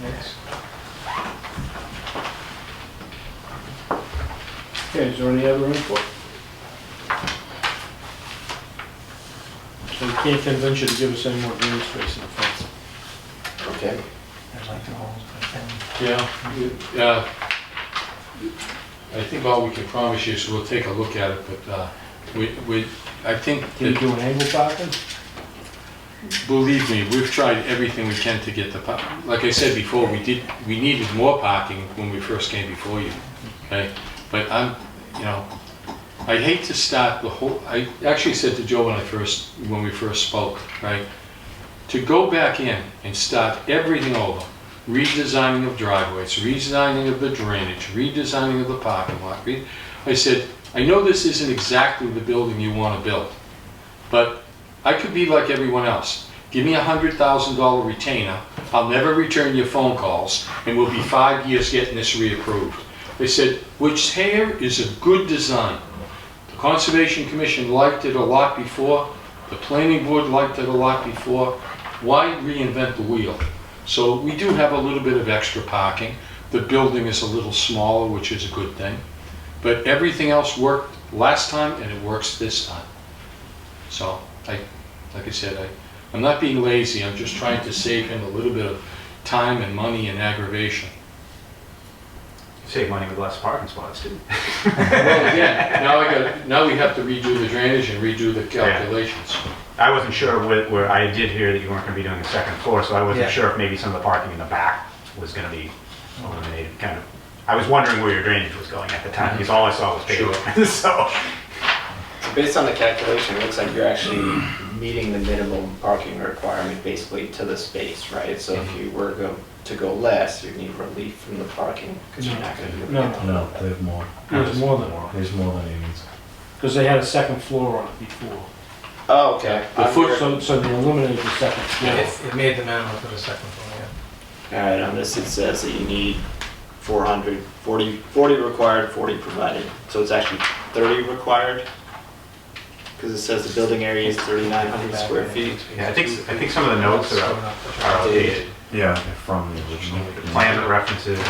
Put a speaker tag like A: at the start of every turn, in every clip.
A: Next. Okay, is there any other input? So we can't convince you to give us any more green space in the fence.
B: Okay.
C: I'd like the holes, but then
D: Yeah, it, uh, I think all we can promise you is we'll take a look at it, but uh, we, we, I think,
A: Can you
D: that-
A: do an angle parking?
D: believe me, we've tried everything we can to get the, par- like I said before, we did, we needed more parking when we first came before you, okay? But I'm, you know, I hate to start the whole, I actually said to Joe when I first, when we first spoke, right? To go back in and start everything over, redesigning of driveways, redesigning of the drainage, redesigning of the parking lot. re- I said, I know this isn't exactly the building you want to build, but I could be like everyone else. Give me a hundred thousand dollar retainer, I'll never return your phone calls, and we'll be five years getting this reapproved. They said, which here is a good design. The Conservation Commission liked it a lot before, the planning board liked it a lot before. Why reinvent the wheel? So we do have a little bit of extra parking. The building is a little smaller, which is a good thing. But everything else worked last time and it works this time. So I, like I said, I, I'm not being lazy, I'm just trying to save him a little bit of time and money and aggravation.
B: Save money with less parking spots, too.
D: Well, again, now I got, now we have to redo the drainage and redo the calculations.
B: I wasn't sure where, where, I did hear that you weren't gonna be doing the second floor, so I wasn't
C: Yeah.
B: sure if maybe some of the parking in the back was gonna be eliminated, kind of. I was wondering where your drainage was going at the time, because all I saw was pavement, so.
E: So based on the calculation, it looks like you're actually meeting the minimum parking requirement basically to the space, right? So if you were go, to go less, you'd need relief from the parking because you're not going to.
A: No,
F: No, there's more.
A: there's more than one,
F: There's more than he needs.
A: because they had a second floor on it before.
E: Oh, okay.
D: The
E: I'm
D: foot-
E: here-
A: So, so they eliminated the second floor.
C: it, it made the minimum for the second floor, yeah.
E: All right, on this, it says that you need 400, 40, 40 required, 40 provided. So it's actually 30 required? Because it says the building area is 3,900 square feet.
B: Yeah, I think, I think some of the notes are, are outdated.
F: Yeah. From the original.
B: The Plan references and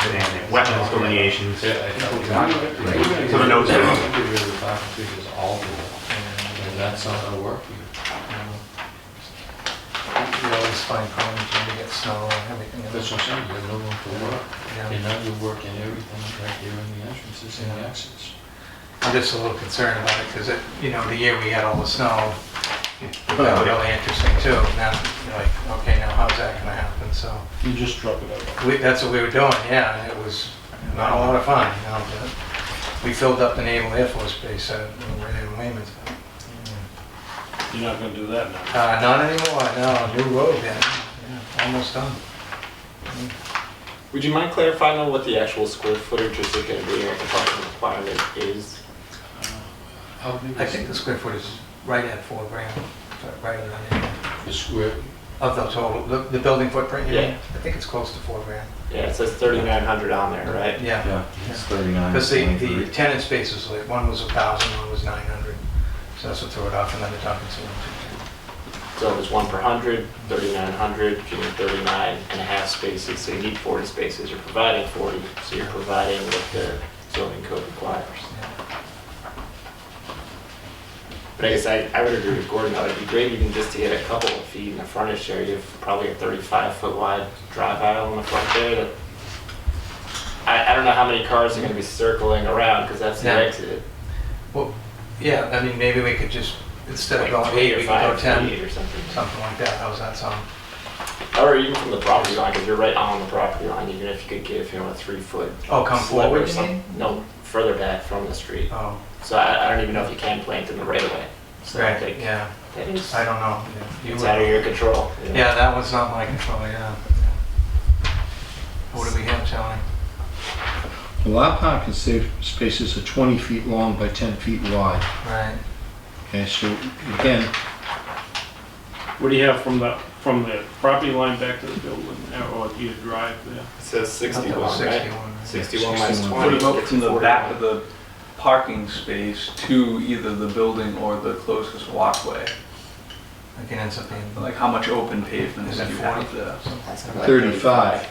B: wetlands delineations.
D: Yeah, I think-
B: So the notes are-
D: And that's not gonna work.
C: You always find problems when you get snow and everything.
D: That's what I'm saying, you have no room for work,
C: Yeah.
D: and now you're working everything right there in the entrances and the exits.
C: I'm just a little concerned about it because it, you know, the year we had all the snow, it got really interesting too. Now, you're like, okay, now how's that gonna happen? So,
A: You just drop it over.
C: we, that's what we were doing, yeah, and it was not a lot of fun, you know, but we filled up the Naval Air Force Base, uh, over there in Weymouth.
D: Mm.
A: You're not gonna do that now.
C: Uh, not anymore, no, new road, yeah, yeah, almost done.
E: Would you mind clarifying on what the actual square footage is going to be, what the parking requirement is?
D: How big
C: I
D: is
C: think the square foot is right at four grand, right around there.
D: the square?
C: Of the total, the, the building footprint, you mean?
E: Yeah.
C: I think it's close to four grand.
E: Yeah, it says 3,900 on there, right?
C: Yeah,
F: Yeah, it's thirty-nine.
C: because the, the tenant spaces, like, one was a thousand, one was nine hundred. So that's what threw it off, and then the top is two hundred.
E: So there's one per 100, 3,900, if you need 39 and a half spaces, so you need 40 spaces, you're providing 40, so you're providing what the zoning code requires. But I guess I, I would agree with Gordon, though, it'd be great even just to get a couple of feet in the furnished area, of probably a 35-foot wide drive aisle in the front there that, I, I don't know how many cars are gonna be circling around, because that's the
C: Yeah.
E: exit.
C: Well, yeah, I mean, maybe we could just, instead of
E: Like
C: going
E: three
C: eight,
E: or
C: we could go
E: five
C: ten,
E: feet or something.
C: something like that, how's that sound?
E: Or even from the property line, because you're right on the property line, even if you could give him a three-foot
C: Oh, come
E: sliver or
C: forward, you
E: something.
C: mean?
E: No, further back from the street.
C: Oh,
E: So I, I don't even know if you can plant in the right of way. So I
C: right,
E: think
C: yeah,
E: that is,
C: I don't know. yeah. You
E: it's
C: were-
E: out of your control. you know.
C: Yeah, that was not my control, yeah. What do we have, Charlie?
G: Well, our parking safe spaces are 20 feet long by 10 feet wide.
C: Right.
G: Okay, so again,
A: What do you have from the, from the property line back to the building, or your drive there?
E: It says sixty-one, right?
C: Sixty-one. right?
E: Sixty-one minus
G: 61.
H: Put
E: twenty.
H: it up
E: it's
H: from the
E: 41.
H: back of the parking space to either the building or the closest walkway?
C: Like it ends up being
H: Like how much open pavement
C: Is
H: is
C: that
H: you have there?
E: That's like
G: 35.